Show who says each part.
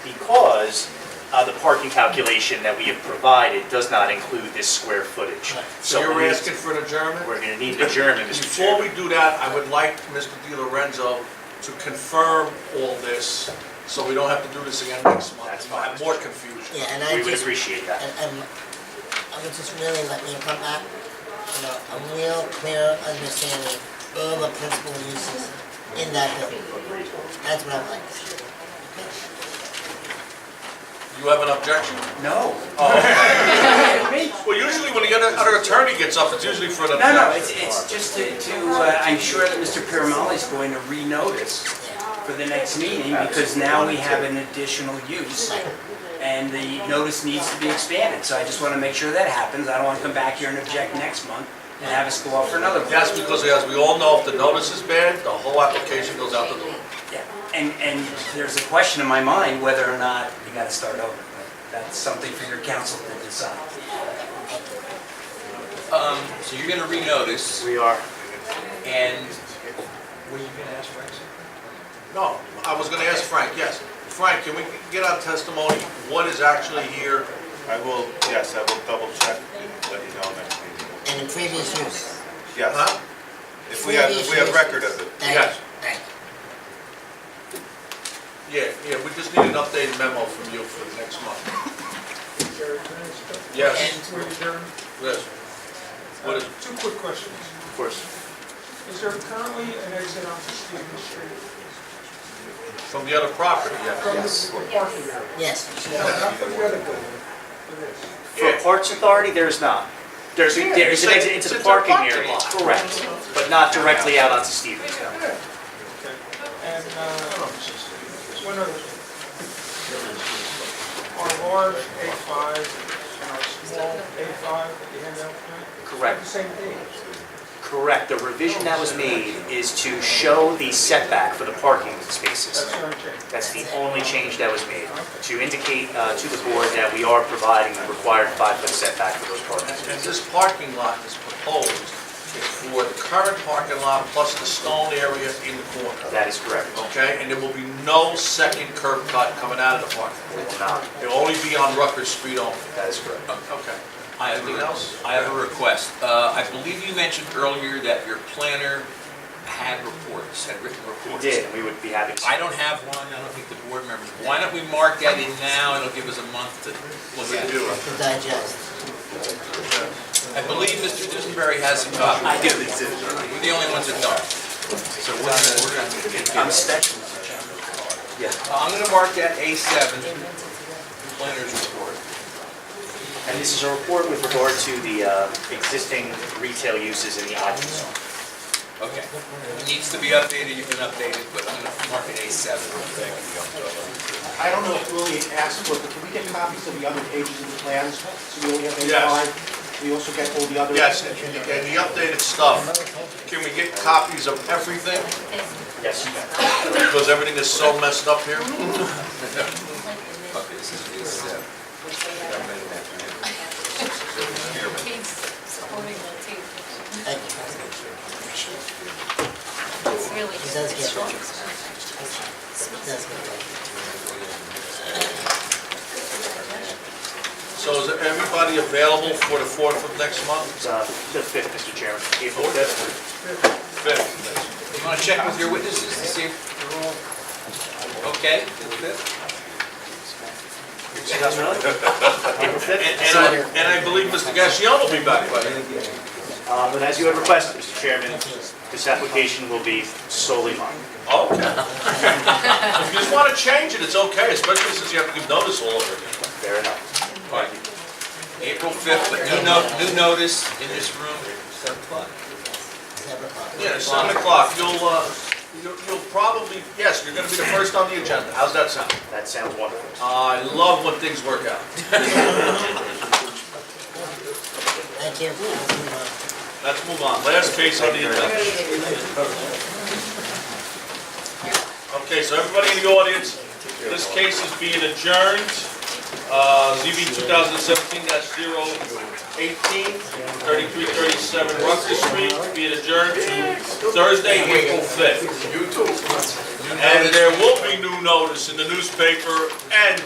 Speaker 1: because uh, the parking calculation that we have provided does not include this square footage.
Speaker 2: So you're
Speaker 1: we-
Speaker 2: asking for an adjournment?
Speaker 1: We're going to need an adjournment, Mr.
Speaker 2: Before we
Speaker 1: Chairman.
Speaker 2: do that, I would like Mr. Di Lorenzo to confirm all this, so we don't have to do this again next month.
Speaker 1: That's
Speaker 2: We'll have
Speaker 1: fine.
Speaker 2: more confusion.
Speaker 3: Yeah, and
Speaker 1: We
Speaker 3: I
Speaker 1: would
Speaker 3: just,
Speaker 1: appreciate that.
Speaker 3: and, and I would just really let me come back, you know, a real clear understanding of all the principal uses in that building. That's what I'd like to see.
Speaker 2: You have an objection?
Speaker 1: No.
Speaker 4: Oh.
Speaker 2: Well, usually when the other other attorney gets up, it's usually for an
Speaker 4: No,
Speaker 2: objection.
Speaker 4: no, it's, it's just to, to, uh, I'm sure that Mr. Piramali's going to renotice for the next meeting, because now we have an additional use, and the notice needs to be expanded, so I just want to make sure that happens, I don't want to come back here and object next month and have us go out for another one.
Speaker 2: That's because, as we all know, if the notice is bad, the whole application goes out the door.
Speaker 4: Yeah. And, and there's a question in my mind whether or not you gotta start over, but that's something for your council to decide.
Speaker 5: Um, so you're gonna renotice,
Speaker 1: We are.
Speaker 5: and
Speaker 2: No, I was gonna ask Frank, yes. Frank, can we get our testimony, what is actually here?
Speaker 6: I will, yes, I will double check and let you know next meeting.
Speaker 3: And the previous use.
Speaker 2: Huh?
Speaker 6: Yes, if we have, if we have record of it.
Speaker 3: Thank
Speaker 2: Yes.
Speaker 3: you, thank you.
Speaker 2: Yeah, yeah, we just need an updated memo from you for the next month. Yes,
Speaker 3: And
Speaker 7: Wait, Darren,
Speaker 2: yes. What is,
Speaker 7: two quick questions.
Speaker 1: Of course.
Speaker 7: Is there currently an exit on Stevens Street?
Speaker 2: from the other property, yeah.
Speaker 7: Yes. Parking area?
Speaker 3: Yes,
Speaker 7: No, not from the other building. There is.
Speaker 1: For Parks Authority, there's not. There's,
Speaker 2: Yeah,
Speaker 1: there's an
Speaker 2: it's a-
Speaker 1: exit into the
Speaker 2: it's a
Speaker 1: parking
Speaker 2: parking
Speaker 1: area,
Speaker 2: lot.
Speaker 1: correct, but not directly out onto Stevens, no.
Speaker 7: And, uh, one other thing. Our large A5 and our small A5 that you hand out tonight?
Speaker 1: Correct.
Speaker 7: The same thing.
Speaker 1: Correct, the revision that was made is to show the setback for the parking spaces.
Speaker 7: That's our change.
Speaker 1: That's the only change that was made, to indicate uh, to the board that we are providing the required five-foot setback for those parking
Speaker 2: And
Speaker 1: spaces.
Speaker 2: this parking lot is proposed for the current parking lot plus the stone area in the corner,
Speaker 1: That is correct.
Speaker 2: okay? And there will be no second curb cut coming out of the parking
Speaker 1: It
Speaker 2: lot.
Speaker 1: will not.
Speaker 2: It'll only be on Rutgers Street only.
Speaker 1: That is correct.
Speaker 2: Okay.
Speaker 5: I have
Speaker 2: Anything
Speaker 5: a,
Speaker 2: else?
Speaker 5: I have a request. Uh, I believe you mentioned earlier that your planner had reports, had written
Speaker 1: We
Speaker 5: reports.
Speaker 1: did, and we would be happy to.
Speaker 5: I don't have one, I don't think the board members. Why don't we mark that in now, and it'll give us a month to look at it.
Speaker 3: to digest.
Speaker 5: I believe Mr. Dusenberry has a copy. I do. We're the only ones that don't. So we're gonna, we're gonna get-
Speaker 4: I'm special.
Speaker 5: I'm gonna mark that A7, planner's report.
Speaker 1: And this is a report with regard to the uh, existing retail uses in the island zone.
Speaker 5: Okay. It needs to be updated, you can update it, but I'm gonna mark it A7.
Speaker 8: I don't know if Willie asked for, it, but can we get copies of the other pages of the plans? So we only have
Speaker 2: Yes.
Speaker 8: A5, we also get all the other...
Speaker 2: Yes, and and the updated stuff, can we get copies of everything?
Speaker 1: Yes, you can.
Speaker 2: Because everything is so messed up here.
Speaker 5: Okay, this is A7.
Speaker 9: Kate's holding uh, the tape.
Speaker 3: Thank you, President.
Speaker 9: It's really.
Speaker 3: He does get one. That's good.
Speaker 2: So is everybody available for the fourth of next month?
Speaker 1: It's, uh, The 5th, Mr. Chairman, April 5th.
Speaker 2: Fifth.
Speaker 5: You want to check with your witnesses to see if they're all okay?
Speaker 1: April
Speaker 2: And,
Speaker 1: 5th?
Speaker 2: and I, and I believe Mr. Gassion will be back by then.
Speaker 1: Uh, But as you have requested, Mr. Chairman, this application will be solely mine.
Speaker 2: Okay. If you just want to change it, it's okay, especially since you have to give notice all over again.
Speaker 1: Fair enough.
Speaker 5: All right. April 5th, but new no- new notice in this room, 7 o'clock.
Speaker 3: Separate part.
Speaker 2: Yeah, seven o'clock, you'll, uh, you'll you'll probably, yes, you're gonna be the first on the agenda. How's that sound?
Speaker 1: That sounds wonderful.
Speaker 2: I love when things work out.
Speaker 3: Thank you. Let's move on.
Speaker 2: Let's move on. Last case on the agenda. Okay, so everybody in the audience, this case is being adjourned. Uh, ZB 2017-018, 3337 Rutgers Street, being adjourned to Thursday, April 5th. You too. You
Speaker 5: new
Speaker 2: And
Speaker 5: notice.
Speaker 2: there will be new notice in the newspaper and